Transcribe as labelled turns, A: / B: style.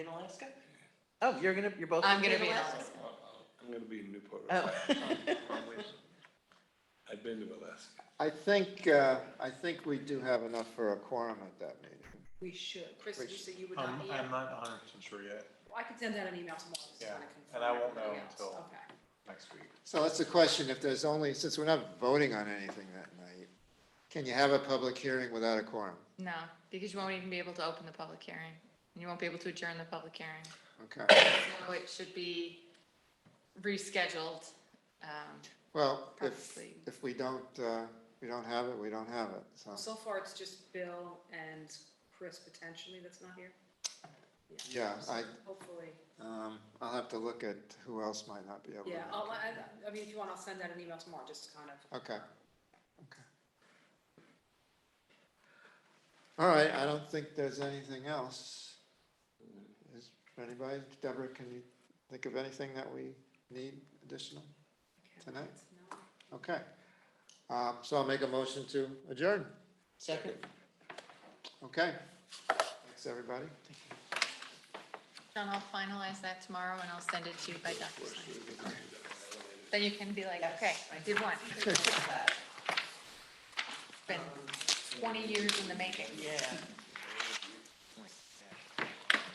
A: In Alaska? Oh, you're gonna, you're both.
B: I'm gonna be in Alaska.
C: I'm gonna be in Newport.
A: Oh.
C: I've been to Alaska.
D: I think, uh, I think we do have enough for a quorum at that meeting.
E: We should. Chris, you
D: Which-
E: said you would
F: I'm,
E: not be.
F: I'm not a hundred percent sure yet,
E: Well, I could send out an email tomorrow, just
F: Yeah,
E: kind of confirm.
F: and I won't
E: everything
F: know
E: else.
F: until-
E: Okay.
F: next week.
D: So that's the question, if there's only, since we're not voting on anything that night, can you have a public hearing without a quorum?
B: No, because you won't even be able to open the public hearing. and You won't be able to adjourn the public hearing.
D: Okay,
B: So it should be rescheduled. um,
D: well, if,
B: Probably.
D: if we don't, uh, we don't have it, we don't have it, so,
E: So far, it's just Bill and Chris potentially that's not here.
D: yeah, I,
E: Hopefully,
D: um, I'll have to look at who else might not be able to.
E: yeah,
D: make
E: I'll,
D: it.
E: I, I mean, if you want, I'll send out an email tomorrow, just to kind of,
D: Okay, okay. All right, I don't think there's anything else. Is anybody, Deborah, can you think of anything that we need additional? Tonight?
E: No.
D: Okay. Um, so I'll make a motion to adjourn.
A: Second?
D: Okay. Thanks, everybody.
B: John, I'll finalize that tomorrow and I'll send it to you by DocuSign. Then you can be like, okay, I did one.
A: Oh.
B: It's Been twenty years in the making.
A: Yeah.